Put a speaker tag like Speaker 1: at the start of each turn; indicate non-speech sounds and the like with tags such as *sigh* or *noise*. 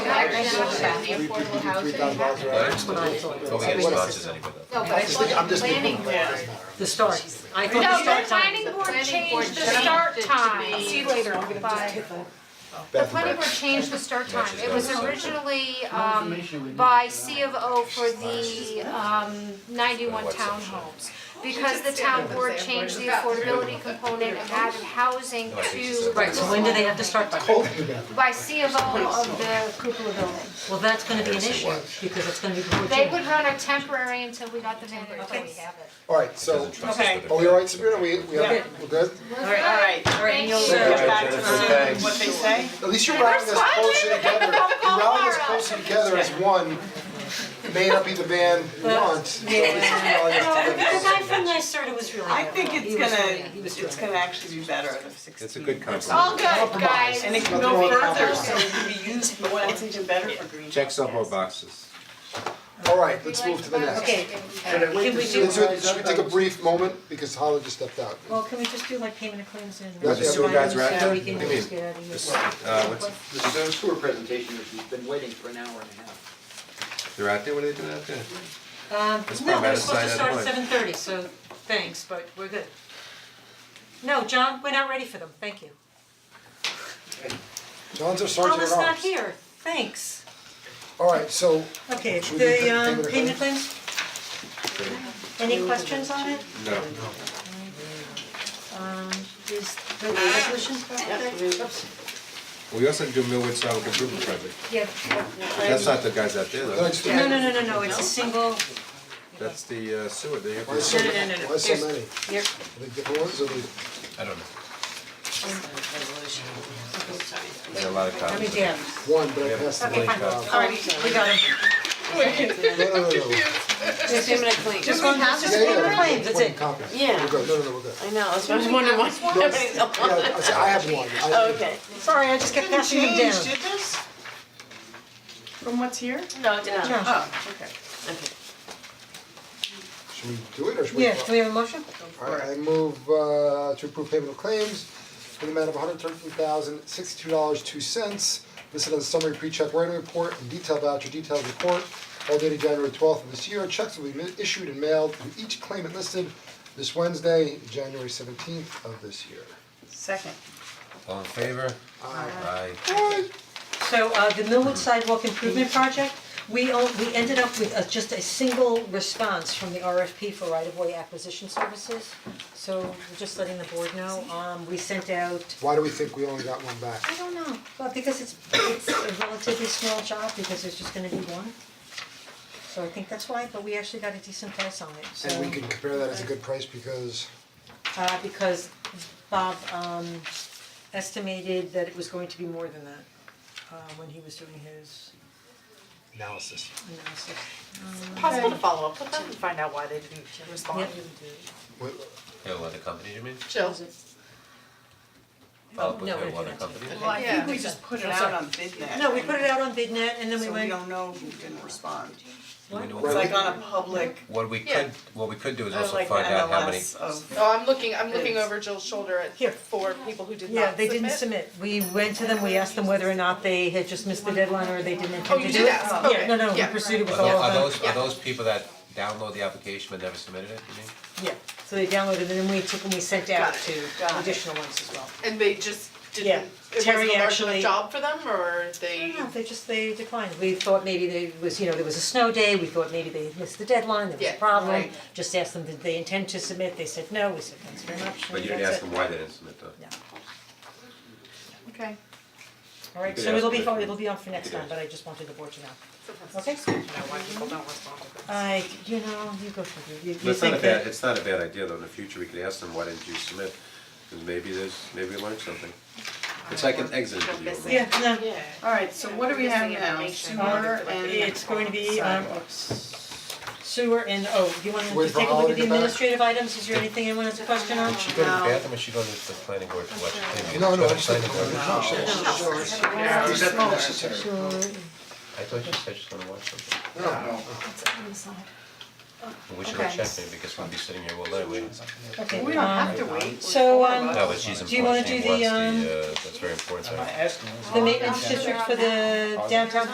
Speaker 1: now about the affordable housing.
Speaker 2: That's
Speaker 3: what I thought.
Speaker 2: But we get responses anyway though.
Speaker 1: No, but I thought the planning board.
Speaker 3: The start, I thought
Speaker 4: No,
Speaker 3: the
Speaker 4: the
Speaker 3: start time.
Speaker 4: planning
Speaker 1: The
Speaker 4: board
Speaker 1: planning board
Speaker 4: changed the
Speaker 1: changed
Speaker 4: start
Speaker 1: it to
Speaker 4: time.
Speaker 1: be-
Speaker 4: See you later, bye. The planning board changed the start time, it was originally um by C of O for the um ninety-one townhomes. Because the town board changed the affordability component and added housing to
Speaker 3: Right, so when do they have to start by?
Speaker 4: by C of O of the cupola building.
Speaker 3: Well, that's gonna be an issue, because it's gonna be before
Speaker 4: They
Speaker 3: June.
Speaker 4: would run a temporary until we got the mandatory.
Speaker 5: Alright, so,
Speaker 2: Okay.
Speaker 5: are we alright Sabrina, we, we have, we're good?
Speaker 6: Alright,
Speaker 3: Alright, and you'll,
Speaker 4: Thank
Speaker 6: get
Speaker 3: uh,
Speaker 6: back to them, what they say.
Speaker 5: At least you're rallying us closer together, you're rallying us closer together as one, It may not be the band we want, so we should rally us
Speaker 3: the
Speaker 5: together.
Speaker 3: guy from NYSERDA was really
Speaker 6: I
Speaker 3: helpful.
Speaker 6: think it's
Speaker 3: He was really-
Speaker 6: gonna,
Speaker 3: he was
Speaker 6: it's
Speaker 3: doing
Speaker 6: gonna actually be better out of sixteen.
Speaker 2: It's a good compromise.
Speaker 4: All good, guys.
Speaker 6: And it can
Speaker 5: Nothing
Speaker 6: go
Speaker 5: wrong with
Speaker 6: further,
Speaker 5: that.
Speaker 6: so it can be used for what's even better for green.
Speaker 2: Checks up more boxes.
Speaker 5: Alright, let's move to the next.
Speaker 3: Okay, can we
Speaker 5: Let's do
Speaker 3: do,
Speaker 5: it, should we take a brief moment, because Holly just stepped out.
Speaker 3: well, can we just do like payment of claims and.
Speaker 5: Yeah, the sewer
Speaker 2: guys are out
Speaker 3: So
Speaker 2: there?
Speaker 3: we can
Speaker 2: What do you
Speaker 3: just
Speaker 2: mean?
Speaker 3: get out of here.
Speaker 2: This, uh, what's,
Speaker 7: The stone sewer presentation, which we've been waiting for an hour and a half.
Speaker 2: they're out there, what are they doing out there?
Speaker 3: Um,
Speaker 2: It's probably
Speaker 3: no, we're
Speaker 2: about the
Speaker 3: supposed to
Speaker 2: size
Speaker 3: start
Speaker 2: of
Speaker 3: at
Speaker 2: the
Speaker 3: seven thirty, so thanks, but we're good. No, John, we're not ready for them, thank you.
Speaker 5: John's our sergeant
Speaker 3: Paula's
Speaker 5: at
Speaker 3: not
Speaker 5: arms.
Speaker 3: here, thanks.
Speaker 5: Alright, so,
Speaker 3: Okay,
Speaker 5: Should we do
Speaker 3: the
Speaker 5: pa-
Speaker 3: um
Speaker 5: payment of
Speaker 3: payment claims? Any questions on it?
Speaker 2: No,
Speaker 3: Um, is the resolution there? Oops,
Speaker 2: we also have to do Millwood Sidewalk Improvement Project,
Speaker 3: Yeah.
Speaker 2: that's not the guys out there
Speaker 5: the
Speaker 2: though,
Speaker 5: next,
Speaker 3: No,
Speaker 5: why
Speaker 3: no, no, no, no, it's a single,
Speaker 2: that's the uh, sewer, they have.
Speaker 5: so,
Speaker 3: no, no, no, no.
Speaker 5: why so
Speaker 3: There's-
Speaker 5: many?
Speaker 3: here,
Speaker 5: Are they different ones, or they?
Speaker 2: I don't know. There's a lot of
Speaker 3: let me
Speaker 2: copies.
Speaker 3: dab.
Speaker 5: One, but I passed the
Speaker 3: Okay,
Speaker 5: link
Speaker 3: fine,
Speaker 5: out.
Speaker 3: alright, we got them.
Speaker 5: No, no, no, no, no.
Speaker 8: Just a minute, please.
Speaker 3: Just one, just
Speaker 5: Yeah, yeah,
Speaker 3: payment of
Speaker 5: yeah,
Speaker 3: claims, that's
Speaker 5: twenty
Speaker 3: it.
Speaker 5: copies.
Speaker 8: Yeah.
Speaker 5: We're good, no, no, no, we're good.
Speaker 8: I know, I was wondering why everybody's up
Speaker 3: *laughs*
Speaker 8: on
Speaker 5: Yeah, I said, I have one, I-
Speaker 3: Oh,
Speaker 8: Okay.
Speaker 3: Sorry, I just kept
Speaker 6: Didn't
Speaker 3: passing them down.
Speaker 6: change, did this? From what's here?
Speaker 8: No, it didn't.
Speaker 3: No.
Speaker 6: Oh, okay.
Speaker 8: Okay.
Speaker 5: Should we do it or should we?
Speaker 3: Yeah, do we have a motion?
Speaker 5: Alright, I move uh to approve payment of claims in the amount of hundred thirteen thousand sixty-two dollars two cents. Listed on the summary pre-check writing report and detailed voucher detailed report, all dated January twelfth of this year. Checks will be mi- issued and mailed to each claimant listed this Wednesday, January seventeenth of this year.
Speaker 6: Second.
Speaker 2: All in favor? Aye.
Speaker 3: So uh the Millwood Sidewalk Improvement Project, we all, we ended up with a just a single response from the RFP for right-of-way acquisition services. So we're just letting the board know, um we sent out,
Speaker 5: Why do we think we only got one back?
Speaker 3: I don't know, but because it's it's a relatively small job because there's just gonna be one. So I think that's why, but we actually got a decent price on it, so
Speaker 5: And we can compare that as a good price because
Speaker 3: uh because Bob um estimated that it was going to be more than that uh when he was doing his
Speaker 5: analysis.
Speaker 3: analysis.
Speaker 6: Possible to follow up with them and find out why they didn't respond.
Speaker 3: Yep.
Speaker 5: Wait,
Speaker 2: Yeah, well, the company, you mean?
Speaker 1: Jill,
Speaker 2: Follow up with
Speaker 3: no,
Speaker 2: the
Speaker 3: we're
Speaker 2: water
Speaker 3: not
Speaker 2: company?
Speaker 6: Well, I think we just put it out on BidNet.
Speaker 3: No, we put it out on BidNet and then we
Speaker 6: So we
Speaker 3: went,
Speaker 6: don't know who didn't respond.
Speaker 2: We know-
Speaker 6: It's like on a public,
Speaker 2: What we
Speaker 1: Yeah.
Speaker 2: could, what we could do is
Speaker 6: or
Speaker 2: also
Speaker 6: like
Speaker 2: find out how many,
Speaker 6: MLS of,
Speaker 1: oh, I'm looking, I'm looking over Jill's shoulder at
Speaker 3: Here.
Speaker 1: four people who did not submit.
Speaker 3: yeah, they didn't submit. We went to them, we asked them whether or not they had just missed the deadline or they didn't
Speaker 1: Oh,
Speaker 3: intend to do it.
Speaker 1: you did ask, okay,
Speaker 3: Yeah, no, no, we
Speaker 1: yeah.
Speaker 3: pursued it
Speaker 2: are
Speaker 3: with
Speaker 2: tho-
Speaker 3: all
Speaker 2: are
Speaker 3: of them,
Speaker 2: those, are those people that download the application but never submitted it, you mean?
Speaker 3: yeah. So they downloaded and then we took and we sent out
Speaker 1: Got it,
Speaker 3: to
Speaker 6: got it.
Speaker 3: additional ones as well.
Speaker 1: And they just
Speaker 3: Yeah.
Speaker 1: didn't, it wasn't
Speaker 3: Terry
Speaker 1: a large enough
Speaker 3: actually-
Speaker 1: job for them, or
Speaker 3: I
Speaker 1: they,
Speaker 3: don't know, they just, they declined. We thought maybe they was, you know, there was a snow day, we thought maybe they had missed the deadline, there was
Speaker 1: Yeah,
Speaker 3: a problem.
Speaker 1: right.
Speaker 3: Just asked them, did they intend to submit? They said no, we said thanks very much.
Speaker 2: But you
Speaker 3: and
Speaker 2: didn't
Speaker 3: that's
Speaker 2: ask
Speaker 3: it.
Speaker 2: them why they didn't submit though.
Speaker 3: No.
Speaker 1: okay,
Speaker 3: Alright,
Speaker 2: could
Speaker 3: so
Speaker 2: ask
Speaker 3: it'll be,
Speaker 2: them if
Speaker 3: fo-
Speaker 2: you-
Speaker 3: it'll be on for next
Speaker 2: could
Speaker 3: time,
Speaker 2: ask.
Speaker 3: but I just wanted the board to know.
Speaker 6: you know, why people don't respond to them.
Speaker 3: I, you know, you go for it, you you
Speaker 2: But it's not a
Speaker 3: think
Speaker 2: bad,
Speaker 3: that,
Speaker 2: it's not a bad idea though, in the future, we could ask them, why didn't you submit? Cause maybe there's, maybe we learned something. It's like an exit interview. right?
Speaker 3: yeah, no,
Speaker 6: Alright, so what do we have now? Sewer and.
Speaker 3: it's going to be um sewer and, oh, you wanna
Speaker 5: Wait
Speaker 3: just
Speaker 5: for
Speaker 3: take a look
Speaker 5: Howard
Speaker 3: at the
Speaker 5: to get back.
Speaker 3: administrative items, is there anything anyone has a question on?
Speaker 2: Should go to the bathroom or should go to the planning board to watch the TV?
Speaker 5: No, no,
Speaker 2: Go
Speaker 5: I'm
Speaker 2: to
Speaker 5: just.
Speaker 2: planning board.
Speaker 5: She's at the nurse's here.
Speaker 2: I thought you said she's gonna watch something.
Speaker 5: No,
Speaker 2: But We should go check maybe because we'll be sitting here all night waiting.
Speaker 3: Okay,
Speaker 6: We don't have to wait.
Speaker 3: so, um,
Speaker 2: No, but she's
Speaker 3: Do you wanna
Speaker 2: important, she
Speaker 3: do the,
Speaker 2: wants the,
Speaker 3: um,
Speaker 2: uh, that's very important, right?
Speaker 3: the maintenance district for the downtown